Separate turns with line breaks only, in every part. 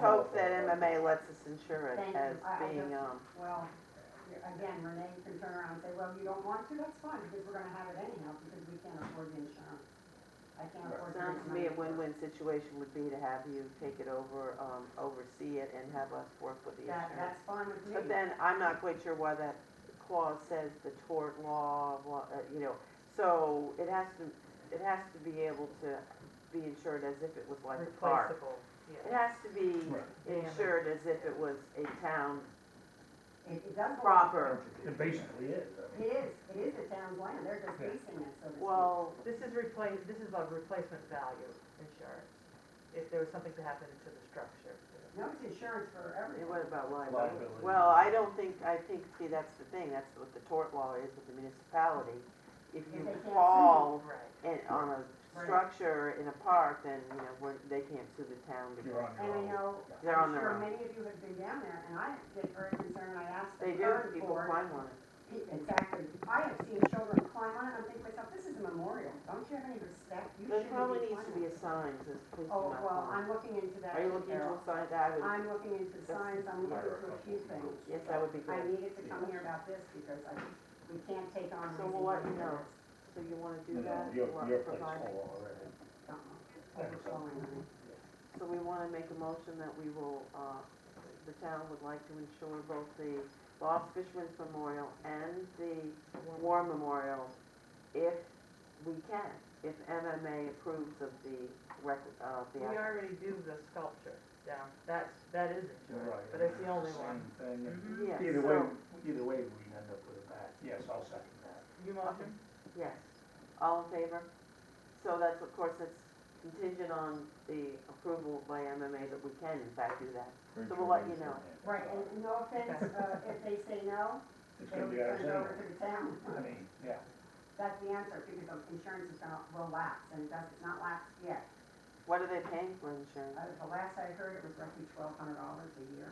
hope that MMA lets us insure it
Thank you.
as
I- I
being,
just-
um,
Well, again, Renee can turn around and say, well, you don't want to, that's fine, because we're gonna have it anyhow, because we can't afford the insurance. I can't afford the
sounds
insurance.
to me a win-win situation would be to have you take it over, um, oversee it and have us work with the
That,
insurance.
that's fine with me.
But then, I'm not quite sure why that clause says the tort law, blah, uh, you know, so it has to, it has to be able to be insured as if it was like a car.
Replaceable,
It
yeah.
has to be
Right.
insured as if it was a town
It, it does. belong-
proper.
It basically is, I
It
mean,
is, it is the town's land, they're just
Yeah.
leasing it, so to speak.
Well,
This is replace, this is like replacement value insurance, if there was something to happen to the structure.
No, it's insurance for
And
everything.
what about liability?
Liability.
Well, I don't think, I think, see, that's the thing, that's what the tort law is with the municipality. If
If
you
they can't sue.
fall
Right.
in, on a
Right.
structure in a park, then, you know, we're- they can't sue the town
you're
because
on
And
your
I
own.
know,
They're on
I'm
their
sure
own.
many of you have been down there, and I get very concerned, I asked
they
the
do,
current
people
board,
climb on it.
Exactly. I have seen children climb on it, I'm thinking to myself, this is a memorial, don't you have any respect? You
There
shouldn't
probably needs to
climbing
be a
this."
sign that says please do
Oh,
not
well,
climb.
I'm looking into that.
Are you looking into
Carol.
a sign that I would,
I'm looking into signs, I'm looking
There are
into a
couple
few
of
things.
rules.
yes, that would be
I
good.
needed to come here about this because I, we can't take on.
So we'll
raising
let you
money
know.
for this.
So you wanna
No,
do
no,
that?
Your,
You want
your
to
place
provide it?
full already.
Uh-uh. Overflowing money.
So we want to make a motion that we will, uh, the town would like to insure both the Lost Fisherman's Memorial and the War Memorial if we can, if MMA approves of the rec, uh,
We
the, act-
already do the sculpture down, that's, that is insurance, but it's the only one.
Same thing.
Mhm.
Mm-hmm. yeah,
Either way,
so,
either way, we end up with a match. Yes, I'll second that.
You motion?
yes, all in favor? So that's, of course, it's contingent on the approval by MMA that we can in fact do that. So we'll let you know.
Right, and no offense, uh, if they say no,
It's
they
gonna
would
be ours
turn it over
anyway.
to the town.
I mean, yeah,
That's the answer because of insurance is gonna, will lapse and it does, it's not lapsed yet.
What are they paying for insurance?
Uh, the last I heard, it was roughly twelve hundred dollars a year.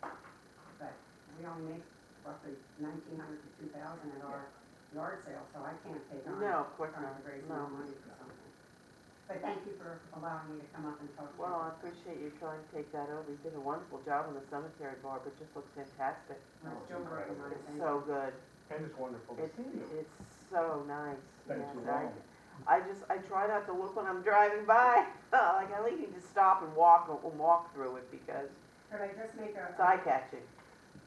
But we only make roughly nineteen hundred to two thousand at our yard sale, so I can't take on.
No, of course
Trying to raise
not, no.
more money for something. But thank you for allowing me to come up and talk to you.
Well, I appreciate you trying to take that over. You did a wonderful job on the cemetery, Barb. It just looks fantastic.
I'm still working on it.
It's
thank you.
so good.
and it's wonderful to
It's,
see you.
it's so nice.
Thanks
Yes,
for
I-
long.
I just, I try not to look when I'm driving by. Like, I need to stop and walk, and walk through it because
Could I just make a?
it's eye-catching.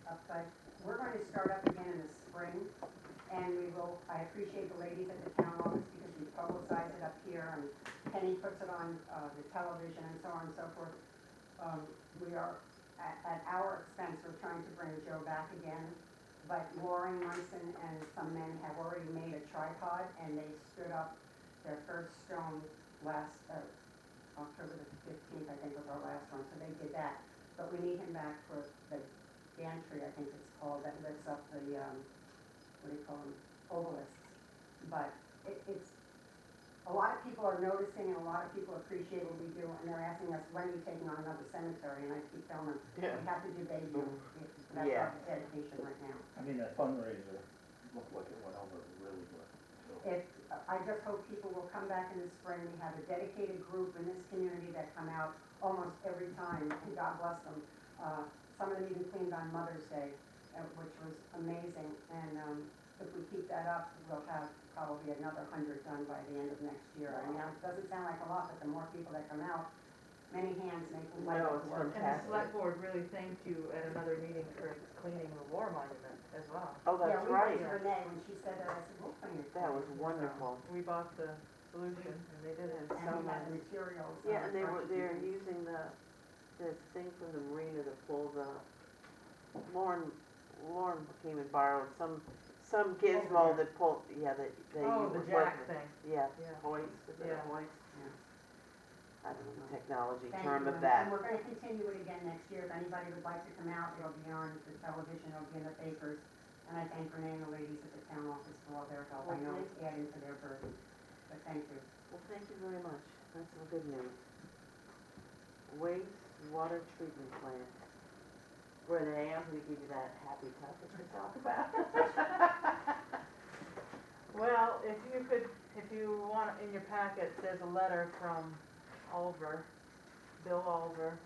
upside. We're going to start up again in the spring, and we will, I appreciate the ladies at the town office because we publicize it up here, and Penny puts it on uh, the television and so on and so forth. Um, We are, at, at our expense, we're trying to bring Joe back again, but Lauren Munson and some men have already made a tripod, and they stood up their first stone last, uh, October the fifteenth, I think was our last one, so they did that. But we need him back for the gantry, I think it's called, that lifts up the, um, what do you call them, obelisks. But it, it's, a lot of people are noticing and a lot of people appreciate what we do and they're asking us, when are you taking on another cemetery? And I keep telling them, we have to do Bayview, that's
Yeah.
our dedication right now.
I mean, that fundraiser looked like it went over really good, so.
If, I just hope people will come back in the spring, we have a dedicated group in this community that come out almost every time, and God bless them. Uh, Some of them even cleaned on Mother's Day, uh, which was amazing, and um, if we keep that up, we'll have probably another hundred done by the end of next year. I mean, it doesn't sound like a lot, but the more people that come out, many hands make the light
No,
up
it's
work.
And the
Fantastic.
select board really thanked you at another meeting for cleaning the war monument as well.
Oh,
Yeah,
that's
we went
right.
to Renee, when she said that, I said, we'll clean it.
That was wonderful.
We bought the solution and they did it.
It's
And
so
we
nice.
had the materials. uh,
Yeah, and they
for
were,
it to
they're
use.
using the, the thing from the marina to pull the, Lauren, Lauren came and borrowed some, some gizmo that pulled, Oh, yeah, that they. was
Oh, the
working-
jack thing.
Yeah,
Yeah.
hoist, is it a
Yeah.
hoist?
Yeah.
I don't know the technology
Thank
term of
you, and-
that.
And we're gonna continue it again next year, if anybody would like to come out, it'll be on the television, it'll be in the papers. And I thank Renee and the ladies at the town office for all their help, I know it's adding to their burden, but thank you.
Well, thank you very much. That's some good news. Wastewater treatment plant. Renee, I'm gonna give you that happy topic to talk about.
Well, if you could, if you want, in your packet, there's a letter from Oliver, Bill Oliver,